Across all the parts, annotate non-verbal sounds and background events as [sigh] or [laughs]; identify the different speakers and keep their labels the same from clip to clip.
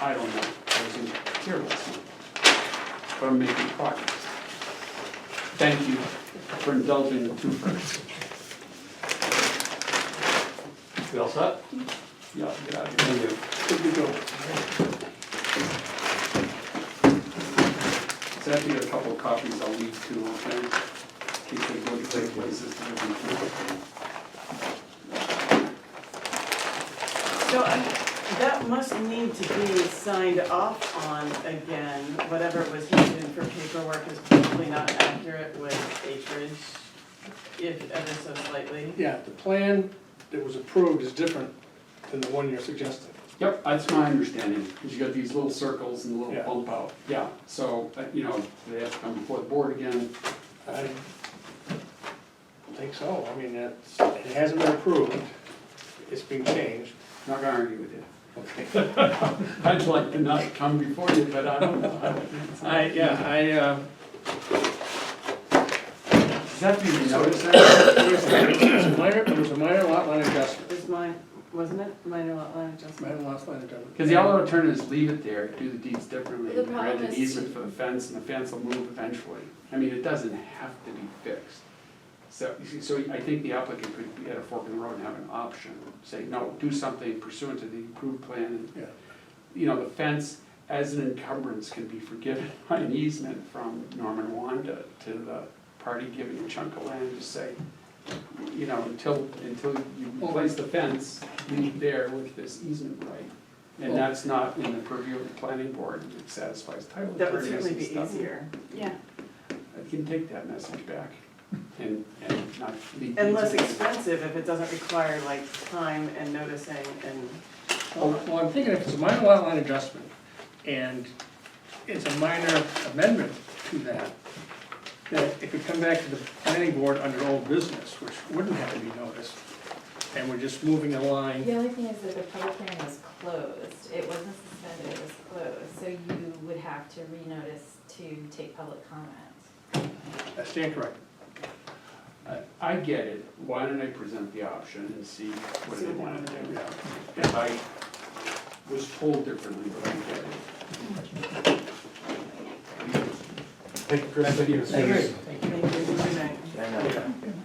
Speaker 1: I don't know, I wasn't here last night, but I'm making progress. Thank you for indulging the two firsts.
Speaker 2: We all set?
Speaker 1: Yeah, get out of here. Thank you. Good to go. So after you get a couple of copies, I'll uh, leave two, okay? In case they go to great places. to live
Speaker 3: So um, that must need to be signed off on again, whatever was needed for paperwork is probably not accurate with acreage, if ever so slightly.
Speaker 4: Yeah, the plan that was approved is different than the one you're suggesting.
Speaker 1: in. Yep, that's my understanding, because you got these little circles and the
Speaker 4: Yeah.
Speaker 1: little bump out. Yeah, so, uh, you know, they have to come before the board again.
Speaker 4: I don't think so, I mean, it's, it hasn't been approved, it's been changed.
Speaker 1: Not gonna argue with you.
Speaker 4: Okay.
Speaker 1: I'd like to not come before you, but I don't know.
Speaker 4: I, yeah, I, uh,
Speaker 1: Does that mean you notice that?
Speaker 4: it was a minor, it was a minor lot line adjustment,
Speaker 3: Is mine, wasn't it, minor lot line
Speaker 4: minor
Speaker 3: adjustment?
Speaker 4: lot line adjustment.
Speaker 1: Because the other alternative is leave it there, do the deeds differently,
Speaker 5: The
Speaker 1: grant
Speaker 5: problem
Speaker 1: an
Speaker 5: is
Speaker 1: easement
Speaker 5: to-
Speaker 1: for the fence, and the fence will move eventually. I mean, it doesn't have to be fixed. So, you see, so I think the applicant could be at a fork in the road and have an option, say, no, do something pursuant to the approved plan.
Speaker 4: Yeah.
Speaker 1: You know, the fence as an encumbrance can be forgiven [laughs] by an easement from Norman Wanda to the party giving a chunk of land, just say, you know, until, until you replace the fence, leave it there with this easement right. And that's not in the purview of the planning board, it satisfies title
Speaker 3: That would
Speaker 1: attorneys and stuff.
Speaker 3: certainly be easier,
Speaker 5: Yeah,
Speaker 1: I can take that message back and, and not leave.
Speaker 3: and less
Speaker 1: these-
Speaker 3: expensive if it doesn't require like time and noticing and,
Speaker 4: Well, well, I'm thinking if it's a minor lot line adjustment, and it's a minor amendment to that, that it could come back to the planning board under old business, which wouldn't have to be noticed, and we're just moving a line.
Speaker 5: the only thing is that the public hearing was closed, it wasn't suspended, it was closed, so you would have to renotice to take public comment.
Speaker 4: I stand corrected.
Speaker 1: I- I get it, why don't I present the option and see what they wanna do?
Speaker 4: Yeah.
Speaker 1: If I was told differently, but I get it.
Speaker 6: Thank you, Chris. Thank you.
Speaker 3: making it easier.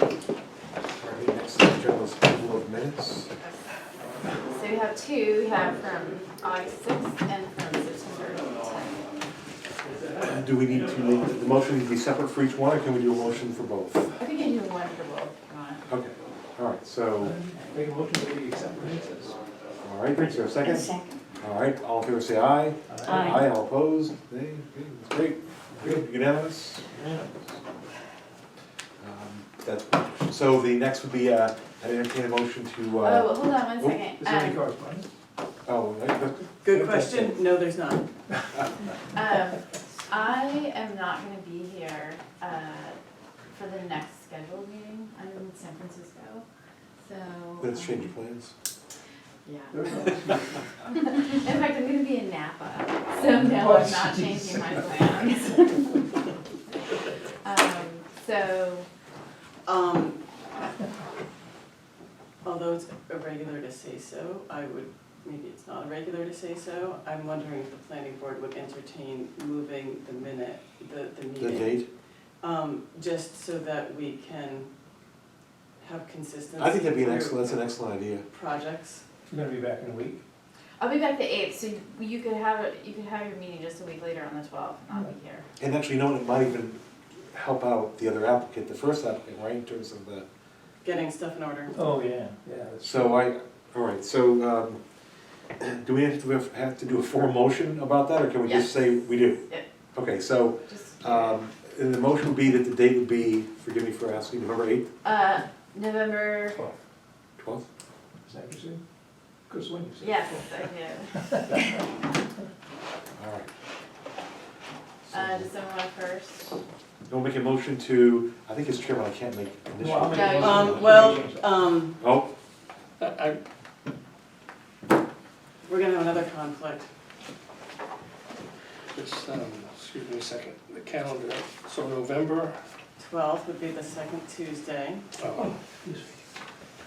Speaker 6: All right, next on the agenda is approval of minutes.
Speaker 5: So we have two, we have from August sixth and from September tenth.
Speaker 6: Do we need to, make- the motion needs to be separate for each one, or can we do a motion for both?
Speaker 5: I think you do one for both, if you want.
Speaker 6: Okay, all right, so,
Speaker 2: Make a motion that we accept the minutes.
Speaker 6: all right, is there a second? All right, all in favor say aye.
Speaker 5: Aye.
Speaker 6: all opposed, nay, okay, that's great, good, unanimous? Um, That's, so the next would be, uh, I entertain a motion to, uh,
Speaker 5: Oh, hold on one
Speaker 6: oh,
Speaker 5: second.
Speaker 2: Is there any
Speaker 5: Um,
Speaker 2: correspondence?
Speaker 6: oh, I- I-
Speaker 3: Good question, no, there's not.
Speaker 5: Um, I am not gonna be here, uh, for the next scheduled meeting, I'm in San Francisco, so.
Speaker 6: let's
Speaker 5: um,
Speaker 6: change your plans.
Speaker 5: Yeah.
Speaker 2: There
Speaker 5: [laughs]
Speaker 2: we go.
Speaker 5: In fact, I'm gonna be in Napa,
Speaker 2: Oh,
Speaker 5: so no, I'm not changing my plans. [laughs] Um, so,
Speaker 3: Um, although it's irregular to say so, I would, maybe it's not irregular to say so, I'm wondering if the planning board would entertain moving the minute, the, the
Speaker 6: The
Speaker 3: meeting.
Speaker 6: date,
Speaker 3: Um, just so that we can have consistency.
Speaker 6: I think that'd be an
Speaker 3: through
Speaker 6: excellent, that's an excellent idea.
Speaker 3: Projects,
Speaker 2: We're gonna be back in a week.
Speaker 5: I'll be back the eighth, so you could have, it- you could have your meeting just a week later on the twelfth, and I'll be here.
Speaker 6: And actually, you know, what, it might even help out the other applicant, the first applicant, right, in terms of the,
Speaker 3: getting stuff in order.
Speaker 2: Oh, yeah, yeah. that's-
Speaker 6: so I, all right, so, um, [clears throat] do we have to, have to do a formal motion about that, or can we just say we do?
Speaker 5: Yeah.
Speaker 6: Okay, so,
Speaker 5: Just, uh,
Speaker 6: um, and the motion would be that the date would be, forgive me for asking, November eighth,
Speaker 5: uh, November,
Speaker 2: Twelve.
Speaker 6: twelfth?
Speaker 2: Is that what you said? Chris, when you said?
Speaker 5: yes, I do,
Speaker 6: All right.
Speaker 5: uh,
Speaker 6: So,
Speaker 5: December first.
Speaker 6: We'll make a motion to, I think as chairman, I can't make
Speaker 2: Well, I'll
Speaker 6: initial.
Speaker 2: make a
Speaker 5: No,
Speaker 2: motion.
Speaker 3: Um, well, um,
Speaker 6: Oh,
Speaker 4: I, I,
Speaker 3: we're gonna have another conflict.
Speaker 4: just, um, excuse me a second, the calendar, so November,
Speaker 3: Twelfth would be the second Tuesday.
Speaker 4: oh,
Speaker 2: This week.